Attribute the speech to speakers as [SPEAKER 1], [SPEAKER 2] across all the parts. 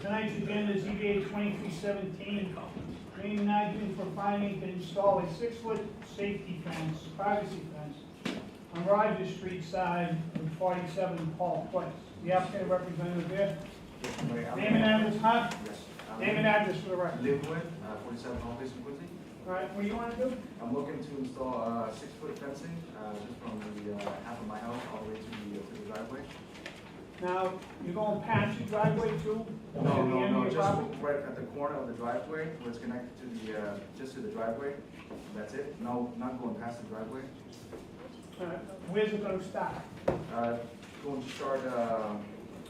[SPEAKER 1] tonight's agenda is EVA twenty-three seventeen, green nineteen for finding to install a six-foot safety fence, privacy fence on Rogers Street side of forty-seven Paul Place. The applicant representative there, name and address, huh? Name and address for the record.
[SPEAKER 2] Live with, uh, forty-seven Home Basin Quincy.
[SPEAKER 1] All right, what do you wanna do?
[SPEAKER 2] I'm looking to install, uh, six-foot fencing, uh, just from the, uh, half of my house all the way to the, uh, to the driveway.
[SPEAKER 1] Now, you're going past your driveway too?
[SPEAKER 2] No,
[SPEAKER 1] To the
[SPEAKER 2] no,
[SPEAKER 1] end of
[SPEAKER 2] no,
[SPEAKER 1] your
[SPEAKER 2] just
[SPEAKER 1] property?
[SPEAKER 2] right at the corner of the driveway, where it's connected to the, uh, just to the driveway, that's it, no, not going past the driveway.
[SPEAKER 1] All right, Where's it gonna stop?
[SPEAKER 2] Uh, going to start, uh.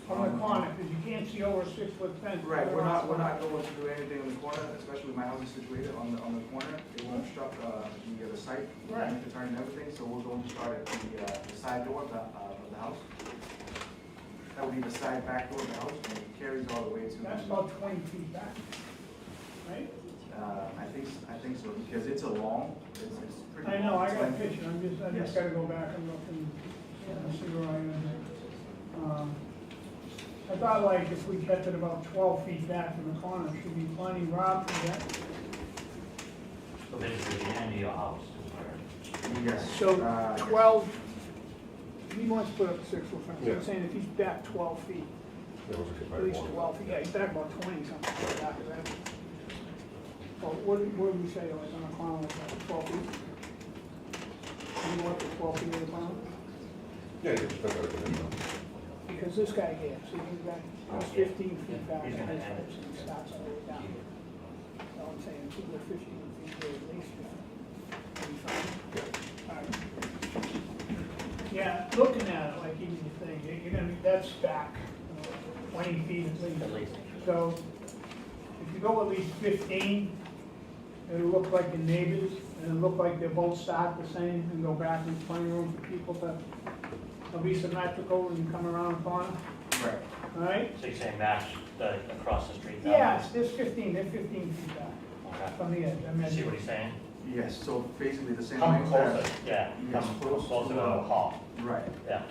[SPEAKER 1] From the
[SPEAKER 2] on-
[SPEAKER 1] corner, because you can't see over a six-foot fence.
[SPEAKER 2] Right, we're not, we're not going to do anything on the corner, especially with my house is situated on the, on the corner, it won't obstruct, uh, the other site, the
[SPEAKER 1] Right.
[SPEAKER 2] length of turn and everything, so we're going to start at the, uh, the side door of the, uh, of the house. That would be the side back door of the house, and it carries all the way to,
[SPEAKER 1] That's
[SPEAKER 2] the-
[SPEAKER 1] about twenty feet back, right?
[SPEAKER 2] uh, I think, s- I think so, because it's a long, it's, it's pretty.
[SPEAKER 1] I know,
[SPEAKER 2] long,
[SPEAKER 1] I
[SPEAKER 2] so
[SPEAKER 1] got a picture, I'm just, I
[SPEAKER 2] Yes.
[SPEAKER 1] just gotta go back and look and and see where I am. Um, I thought like if we kept it about twelve feet back from the corner, it should be plenty, Rob, for that.
[SPEAKER 3] So basically, the end of your house is where.
[SPEAKER 2] Yes. uh,
[SPEAKER 1] So
[SPEAKER 2] yes.
[SPEAKER 1] twelve, he wants to put up a six-foot fence,
[SPEAKER 4] Yeah.
[SPEAKER 1] I'm saying if he's back twelve feet,
[SPEAKER 4] That was a good
[SPEAKER 1] at
[SPEAKER 4] very
[SPEAKER 1] least
[SPEAKER 4] long-
[SPEAKER 1] twelve feet, yeah, he's back about twenty something like that, is that? Well, what, did- what did we say, like on the corner, like about twelve feet? You want the twelve feet in the corner?
[SPEAKER 4] Yeah, yeah, that's better than that.
[SPEAKER 1] Because this guy here, see, he's got, he's fifteen feet back, and
[SPEAKER 3] He's
[SPEAKER 1] his
[SPEAKER 3] gonna add
[SPEAKER 1] fence and stops all the way down. So I'm saying, people are fifteen feet there at least, yeah. Alright. Yeah, looking at it, like even the thing, you're- you're gonna, be that's back twenty feet at least.
[SPEAKER 3] At least.
[SPEAKER 1] So, if you go at least fifteen, it'll look like the neighbors, and it'll look like they're both stocked the same, and go back in plenty of room for people to, there'll be symmetrical when you come around the corner,
[SPEAKER 2] Right,
[SPEAKER 1] all right?
[SPEAKER 3] So you're saying match the, across the street? down
[SPEAKER 1] Yeah, there's fifteen, they're fifteen feet back
[SPEAKER 3] there?
[SPEAKER 1] from the edge, I
[SPEAKER 3] Okay. See what
[SPEAKER 1] mean,
[SPEAKER 3] he's saying?
[SPEAKER 2] yes, so basically the same.
[SPEAKER 3] Come
[SPEAKER 2] length
[SPEAKER 3] closer,
[SPEAKER 2] as-
[SPEAKER 3] yeah,
[SPEAKER 2] Yes,
[SPEAKER 4] Mm-hmm.
[SPEAKER 3] come
[SPEAKER 2] close
[SPEAKER 3] closer to
[SPEAKER 2] to,
[SPEAKER 3] the
[SPEAKER 2] uh,
[SPEAKER 3] hall,
[SPEAKER 2] Right,
[SPEAKER 3] yeah,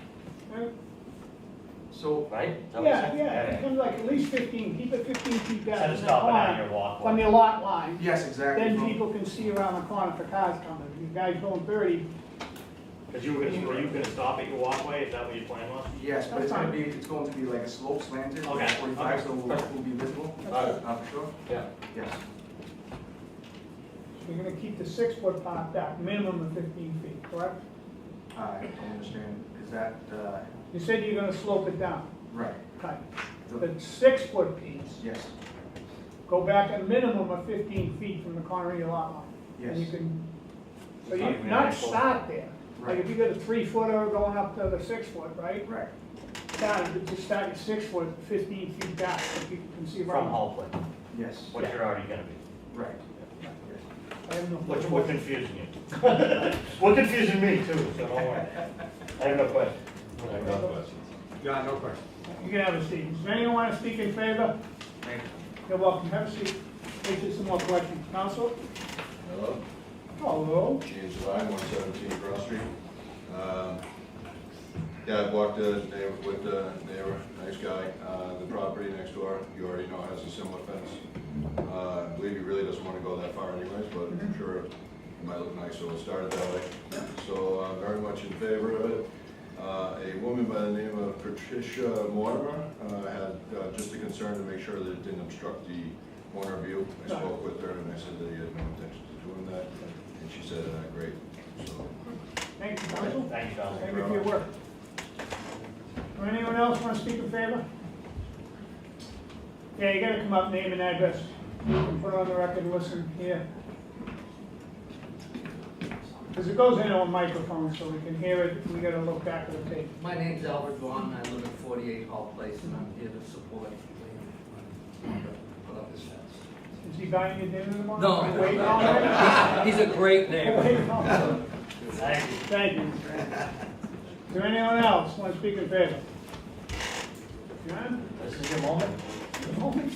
[SPEAKER 2] so
[SPEAKER 3] right? Is that what you're
[SPEAKER 1] yeah,
[SPEAKER 3] saying?
[SPEAKER 1] yeah, it comes like at least fifteen, keep it fifteen feet back.
[SPEAKER 3] Instead of
[SPEAKER 1] from the
[SPEAKER 3] stopping out
[SPEAKER 1] corner,
[SPEAKER 3] your walkway.
[SPEAKER 1] From your lot line,
[SPEAKER 2] Yes, exactly.
[SPEAKER 1] then people can see around the corner for cars coming, if you guys going thirty,
[SPEAKER 5] Cause you were gonna, were you gonna stop at your walkway, is that what your plan was?
[SPEAKER 2] Yes, but it's gonna be, it's going to be like a slope slanted,
[SPEAKER 5] Okay,
[SPEAKER 2] like forty-five,
[SPEAKER 5] okay.
[SPEAKER 2] so we'll, we'll be visible,
[SPEAKER 4] Alright.
[SPEAKER 2] uh, for sure,
[SPEAKER 4] Yeah.
[SPEAKER 2] yes.
[SPEAKER 1] we are gonna keep the six-foot part back, minimum of fifteen feet, correct?
[SPEAKER 2] I don't understand, is that, uh,
[SPEAKER 1] You said you're gonna slope it down,
[SPEAKER 2] right,
[SPEAKER 1] cut.
[SPEAKER 2] the,
[SPEAKER 1] The six-foot piece,
[SPEAKER 2] yes,
[SPEAKER 1] go back a minimum of fifteen feet from the corner of your lot line. And you
[SPEAKER 2] Yes.
[SPEAKER 1] can, so
[SPEAKER 3] Not
[SPEAKER 1] you're
[SPEAKER 3] even
[SPEAKER 1] not
[SPEAKER 3] that close.
[SPEAKER 1] stop there. Like
[SPEAKER 2] Right.
[SPEAKER 1] if you got a three-footer going up to the six-foot, right?
[SPEAKER 2] right,
[SPEAKER 1] Down, you just start at six-foot, fifteen feet back, so people can see
[SPEAKER 3] From
[SPEAKER 1] around.
[SPEAKER 3] hallway,
[SPEAKER 2] yes,
[SPEAKER 3] which you're already gonna be,
[SPEAKER 2] right, yes.
[SPEAKER 1] I have no
[SPEAKER 5] Which,
[SPEAKER 1] problem.
[SPEAKER 5] we're confusing you. We're confusing me too, so don't worry. I have no question.
[SPEAKER 4] No questions. Yeah, no questions.
[SPEAKER 1] You can have a seat. Does anyone wanna speak in favor?
[SPEAKER 2] Thank you.
[SPEAKER 1] You're welcome, have a seat. Take just some more questions. Counsel?
[SPEAKER 6] Hello,
[SPEAKER 1] Hello?
[SPEAKER 6] James Lyon, one seventeen Cross Street. Um, Yeah, I walked the neighbor with the neighbor, nice guy. Uh, The property next door, you already know, has a similar fence. Uh, I believe he really doesn't want to go that far anyways, but I'm sure it might look nice, so we'll start it that way. So I'm very much in favor of it. Uh, A woman by the name of Patricia Mortimer uh, had uh, just a concern to make sure that it didn't obstruct the corner view. I spoke with her and I said that he had no intention of doing that, and she said, uh, great, so.
[SPEAKER 1] Thank you, counsel.
[SPEAKER 3] thank you, Donald.
[SPEAKER 1] Thank you for your work. Or anyone else want to speak in favor? Yeah, you gotta come up, name and address, you can put it on the record, listen here. Because it goes in on microphone, so we can hear it, we gotta look back at the tape.
[SPEAKER 7] My name's Albert Vaughn, I live at forty-eight Hall Place, and I'm here to support Liam. Put up his fence.
[SPEAKER 1] Is he buying you dinner tomorrow?
[SPEAKER 7] No.
[SPEAKER 1] You waiting all night?
[SPEAKER 7] He's a great
[SPEAKER 1] You
[SPEAKER 7] neighbor.
[SPEAKER 1] waiting all night?
[SPEAKER 3] Thank you.
[SPEAKER 1] Thank you. Mr. Anderson. Is there anyone else want to speak in favor? John?
[SPEAKER 3] This is your moment?
[SPEAKER 1] Good morning.